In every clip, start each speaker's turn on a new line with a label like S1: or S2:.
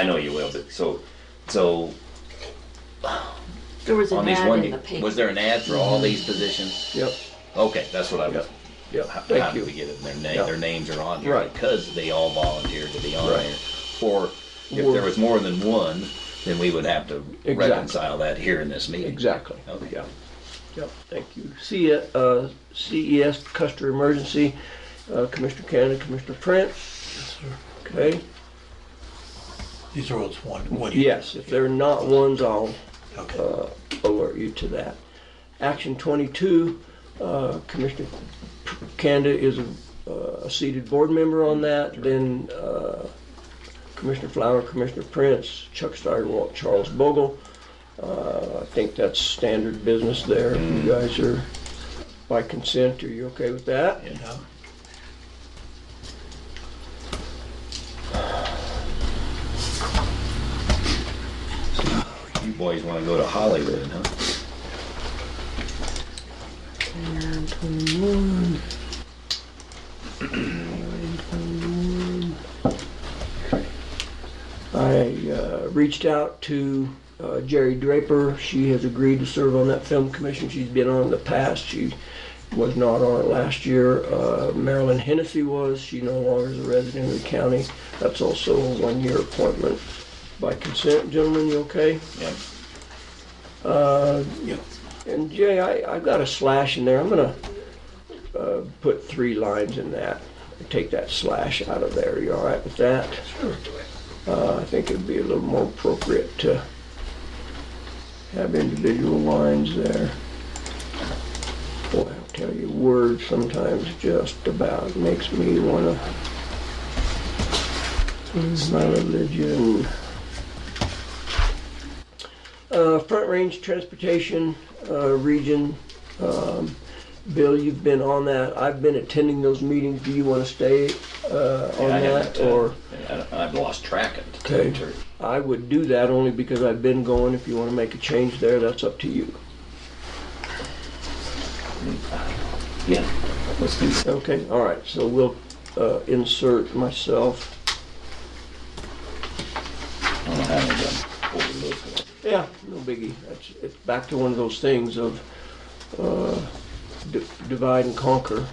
S1: I know you will, but so, so
S2: There was
S1: on
S2: an
S1: these one,
S2: ad in the paper.
S1: was there an ad for all these positions?
S3: Yep,
S1: Okay, that's what I was,
S3: yep, yep,
S1: how how
S3: thank
S1: did we
S3: you.
S1: get it? Their name,
S3: Yeah.
S1: their names are on here
S3: Right.
S1: because they all volunteered to be on
S3: Right.
S1: there. Or if
S3: Or-
S1: there was more than one, then we would have to
S3: Exactly.
S1: reconcile that here in this meeting.
S3: Exactly,
S1: Okay.
S3: yeah, yep, thank you. C, uh, CES, Custer Emergency, uh, Commissioner Cannon, Commissioner Prince,
S4: Yes, sir.
S3: okay?
S4: These are all one, one. year.
S3: Yes, if they're not ones, I'll
S4: Okay.
S3: uh, alert you to that. Action 22, uh, Commissioner Kanda is a uh, a seated board member on that, then uh, Commissioner Flower, Commissioner Prince, Chuck Steigerwalt, Charles Bogle. Uh, I think that's standard business there. If You guys are by consent, are you okay with that?
S4: Yeah.
S1: You boys wanna go to Hollywood, huh?
S3: I uh, reached out to uh, Jerry Draper. She has agreed to serve on that film commission. She's been on in the past. She was not on it last year. Uh, Marilyn Hennessy was. She no longer is a resident of the county. That's also a one-year appointment. By consent, gentlemen, you okay?
S1: Yeah.
S3: And Jay, I, I've got a slash in there. I'm gonna uh, put three lines in that. Take that slash out of there. You all right with that? Sure. Uh, I think it'd be a little more appropriate to have individual lines there. Boy, I'll tell you, words sometimes just about makes me wanna lose my religion. Uh, Front Range Transportation uh, Region, um, Bill, you've been on that. I've been attending those meetings. Do you want to stay uh, on
S1: I
S3: that?
S1: haven't, uh,
S3: Or,
S1: I don't- I've lost track of the
S3: Okay.
S1: territory.
S3: I would do that only because I've been going. If you want to make a change there, that's up to you.
S1: Yeah. Let's do that.
S3: Okay, all right, so we'll uh, insert myself.
S1: I don't know how many of them overlooked it.
S3: Yeah, no biggie. That's, it's back to one of those things of uh, d- divide and conquer.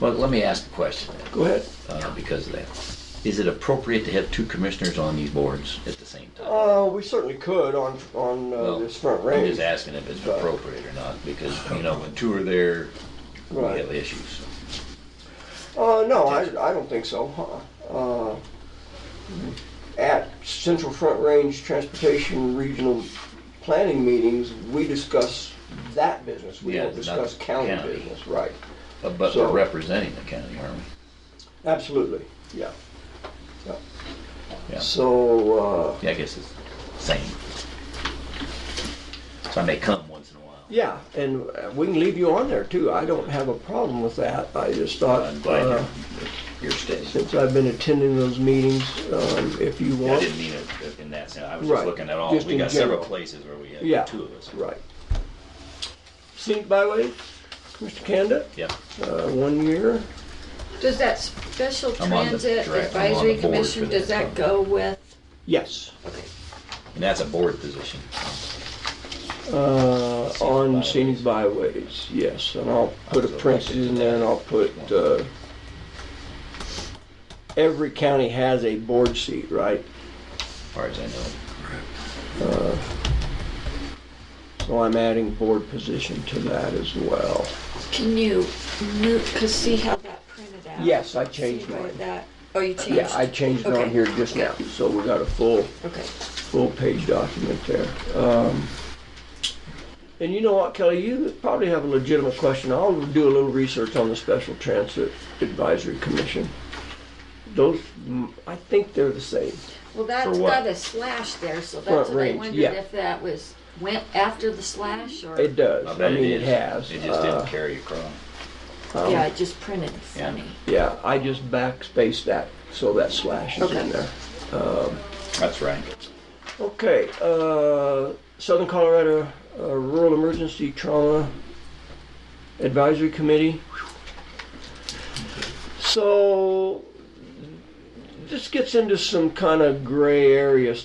S1: Well, let me ask a question then.
S3: Go ahead.
S1: uh, because of that. Is it appropriate to have two commissioners on these boards at the same time?
S3: Uh, we certainly could on, on uh,
S1: Well,
S3: this front
S1: I'm
S3: range.
S1: just asking if it's appropriate or not, because, you know, when two are there, we
S3: Right.
S1: have issues.
S3: Uh, no, I, I don't think so. huh. Uh, at Central Front Range Transportation Regional Planning meetings, we discuss that business. We
S1: Yeah,
S3: don't
S1: not
S3: discuss county,
S1: county.
S3: business, right?
S1: Uh, But
S3: So-
S1: we're representing the county, aren't we?
S3: Absolutely, yeah. yeah.
S1: Yeah.
S3: So, uh,
S1: Yeah, I guess it's same. So I may come once in a while.
S3: yeah, and uh, we can leave you on there too. I don't have a problem with that. I just thought,
S1: I'm glad
S3: uh,
S1: you're, you're staying.
S3: since I've been attending those meetings, um, if you
S1: I
S3: want.
S1: didn't mean it in that sense. I was just
S3: Right.
S1: looking at all,
S3: Just
S1: we
S3: in
S1: got several
S3: general.
S1: places where we
S3: Yeah.
S1: have two of us.
S3: Right. Scenic byway, Mr. Kanda,
S1: Yeah.
S3: uh, one year.
S2: Does that special
S1: I'm on the
S2: transit
S1: direct- I'm on the
S2: advisory
S1: board
S2: commission,
S1: for
S2: does
S1: that.
S2: that go with?
S3: Yes.
S1: And that's a board position.
S3: Uh, on
S1: byways.
S3: scenic byways, yes, and I'll put a
S1: was
S3: Prince's
S1: elected to
S3: in there and I'll put, uh, every county has a board seat, right?
S1: as far as I know.
S3: So I'm adding board position to that as well.
S2: Can you move, cause see how that printed out?
S3: Yes, I changed
S2: See where
S3: mine.
S2: that- Oh, you changed?
S3: Yeah, I changed it on
S2: Okay.
S3: here just now, so we got a full
S2: Okay,
S3: full-page document there. Um, And you know what, Kelly, you probably have a legitimate question. I'll do a little research on the Special Transit Advisory Commission. Those, mm, I think they're the same.
S2: well, that's
S1: For what?
S2: got a slash there, so
S3: Front
S2: that's what I
S3: range, yeah.
S2: wondered if that was, went after the slash or?
S3: It does.
S1: I
S3: I
S1: bet
S3: mean,
S1: it
S3: it
S1: is.
S3: has.
S1: It just
S3: Uh,
S1: didn't carry across.
S3: um,
S2: Yeah, it just printed
S1: Yeah.
S2: funny.
S3: Yeah, I just backspaced that, so that slash is in
S2: Okay.
S3: there.
S1: That's right.
S3: Okay, uh, Southern Colorado uh, Rural Emergency Trauma Advisory Committee. So, this gets into some kind of gray area